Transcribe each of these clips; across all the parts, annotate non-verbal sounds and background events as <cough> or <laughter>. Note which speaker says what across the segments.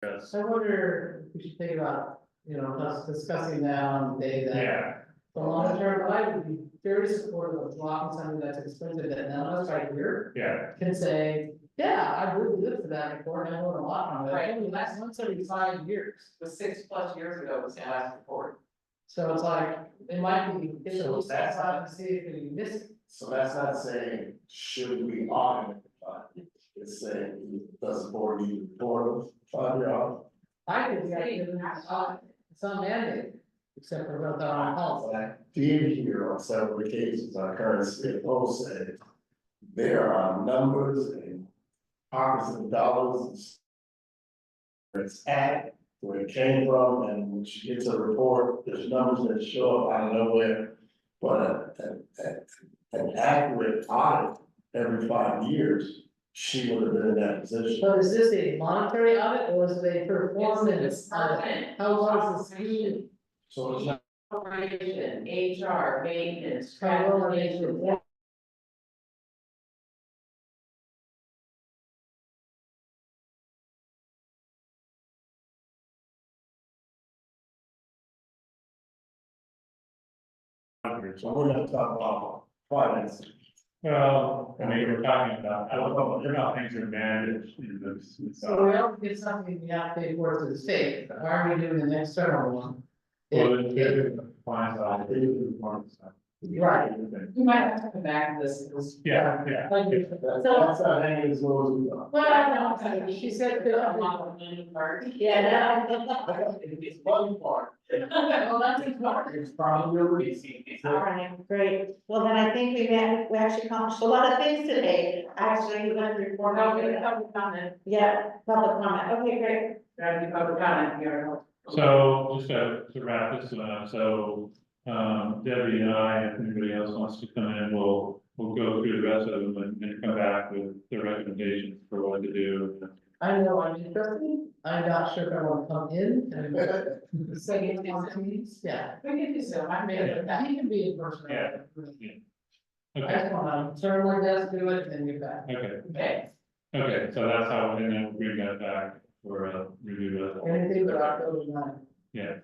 Speaker 1: Because,
Speaker 2: I wonder, if we should think about, you know, us discussing that on the day that,
Speaker 1: yeah,
Speaker 2: the long term, I would be very supportive of blocking something that's expensive that none of us right here
Speaker 1: yeah,
Speaker 2: can say, yeah, I really lived for that before, and I own a lot on it,
Speaker 3: Right.
Speaker 2: only lasts once every five years.
Speaker 3: was six plus years ago was the last report.
Speaker 2: So it's like, it might be, it's a
Speaker 4: So
Speaker 2: little
Speaker 4: that's-
Speaker 2: sad to see if we miss it.
Speaker 4: So that's not saying, should we audit the fund? It's saying, does the board need to report of fund year audit?
Speaker 2: I think we have to, do it. Uh, it's not mandated, except for about that on health.
Speaker 4: But I did hear on several occasions, our current CFO said, there are numbers and pockets of dollars. and s- Where it's at, where it came from, and when she gets a report, there's numbers that show up out of nowhere. But an, an- an accurate audit every five years, she would have been in that position.
Speaker 2: So is this a monetary audit or is it a performance
Speaker 3: It's
Speaker 2: audit?
Speaker 3: permanent.
Speaker 2: How long is this meeting?
Speaker 4: So it's not,
Speaker 3: Operation, HR, maintenance, travel,
Speaker 2: Travel and
Speaker 3: management,
Speaker 2: management.
Speaker 4: so we're not talking about finance.
Speaker 1: well, I mean, we're talking about, I don't know, they're not things that are managed, you know, it's- it's,
Speaker 2: So we
Speaker 1: uh,
Speaker 2: don't get something we have to pay for to the state, why are we doing an external one?
Speaker 1: well,
Speaker 2: It-
Speaker 1: it's
Speaker 2: it-
Speaker 1: different than compliance audit, it's different than performance audit.
Speaker 2: Right.
Speaker 3: You might have to come back to this, this.
Speaker 1: Yeah, yeah, uh,
Speaker 2: like you-
Speaker 4: That's that's not hanging as low as we are.
Speaker 3: Well, I don't know,
Speaker 2: know.
Speaker 3: she said that I'm not a money part.
Speaker 2: Yeah,
Speaker 3: <laughs>
Speaker 4: It's one part.
Speaker 3: Well, that's important.
Speaker 4: It's probably releasing.
Speaker 5: All right, great. Well, then I think we've, had- we actually accomplished a lot of things today. Actually, we went through
Speaker 3: We're
Speaker 5: four
Speaker 3: not gonna
Speaker 5: hundred.
Speaker 3: have a comment,
Speaker 5: Yeah, public comment. Okay, great.
Speaker 3: that'd be public comment, you're.
Speaker 1: so just to to wrap this one up, so, um, Debbie and I, if anybody else wants to come in, we'll, we'll go through the rest of them and, and come back with the recommendations for what to do.
Speaker 2: I know I'm interested, I'm not sure if I want to come in and <laughs>
Speaker 3: So you can,
Speaker 2: on teams, yeah.
Speaker 3: we can do so, I
Speaker 2: I
Speaker 3: mean,
Speaker 2: mean,
Speaker 3: that.
Speaker 2: he can be in person.
Speaker 1: Yeah.
Speaker 2: I
Speaker 1: Okay,
Speaker 2: just want to turn one desk, do it, and then get back.
Speaker 1: okay,
Speaker 3: Okay,
Speaker 1: okay, so that's how, and then we'll bring that back for a review of.
Speaker 2: Anything but October nine.
Speaker 1: Yeah,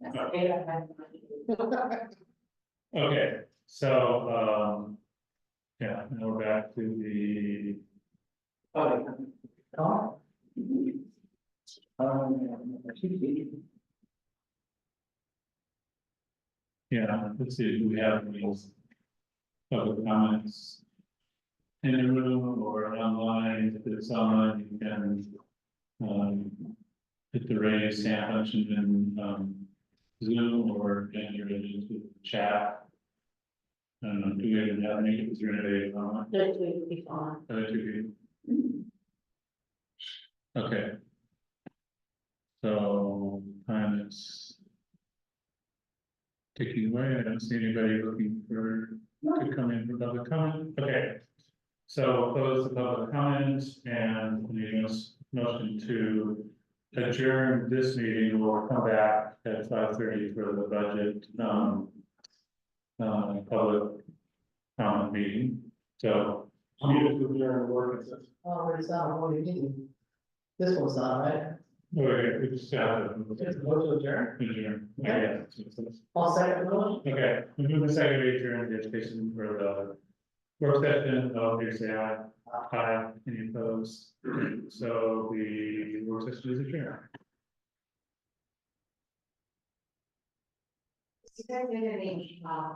Speaker 3: that's okay, I have.
Speaker 1: okay, so, um. Yeah, now we're back to the,
Speaker 3: Public comment.
Speaker 2: Oh,
Speaker 1: yeah, let's see, do we have any public comments? In the room or online, if it's online, you can. Um. Hit the raise hand function in um Zoom or in your chat. Um, do we even have any, is there anybody online?
Speaker 5: This week will be fine.
Speaker 1: Other two people? Okay. So, time is. Ticking away, I don't see anybody looking for, to come in for public comment, okay. So close the public comments and the nos- motion to adjourn this meeting, we'll come back at five thirty for the budget, um. Uh, public comment meeting, so.
Speaker 4: I'm gonna do during the work session.
Speaker 2: oh, but it's not, what do you mean? This one's not, right?
Speaker 1: Okay, we just uh, got
Speaker 2: It's a
Speaker 1: it.
Speaker 2: vote to adjourn.
Speaker 1: Adjourn.
Speaker 2: Okay. All second the motion?
Speaker 1: Okay, we move the second to adjourn the education for the work session, all here say aye. Aye, any opposed? So the work session is adjourned.
Speaker 5: You guys did any, uh,